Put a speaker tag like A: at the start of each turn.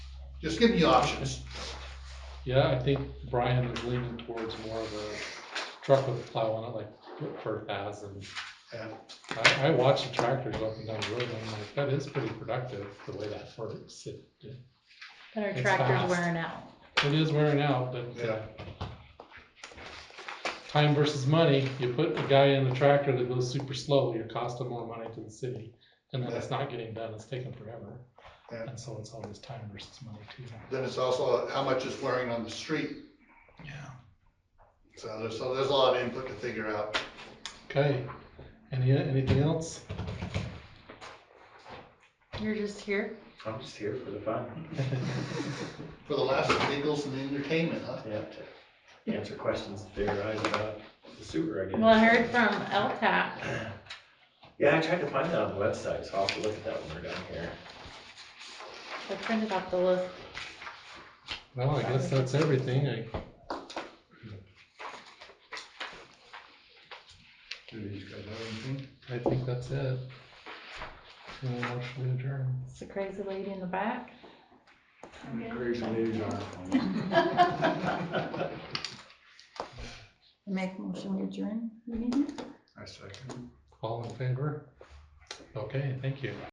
A: Just give me options.
B: Yeah, I think Brian is leaning towards more of a truck with a plow on it, like for paths and.
A: Yeah.
B: I, I watch the tractors up and down the road, and I'm like, that is pretty productive, the way that works. It, it
C: But our
B: It's
C: tractor's
B: fast.
C: wearing out.
B: is wearing out, but, uh,
A: Yeah.
B: time versus money, you put a guy in a tractor that goes super slow, you're costing more money to the city, and then it's not getting done, it's taking forever.
A: Yeah.
B: And so it's always time versus money too.
A: Then it's also how much it's wearing on the street.
B: Yeah.
A: So there's, so there's a lot of input to figure out.
B: Okay, any, anything else?
C: You're just here.
D: I'm just here for the fun.
A: For the last of Eagles and entertainment, huh?
D: Yeah, to answer questions that they arise about the sewer, I guess.
C: Well, I heard from LTAP.
D: Yeah, I tried to find that on the website, so I'll have to look at that when we're done here.
C: I printed out the list.
B: Well, I guess that's everything. I,
A: Do these guys have anything?
B: I think that's it. No motion to adjourn.
C: It's the crazy lady in the back.
D: Crazy news on.
E: Make motion we adjourn, meeting?
A: I second.
B: All in favor? Okay, thank you.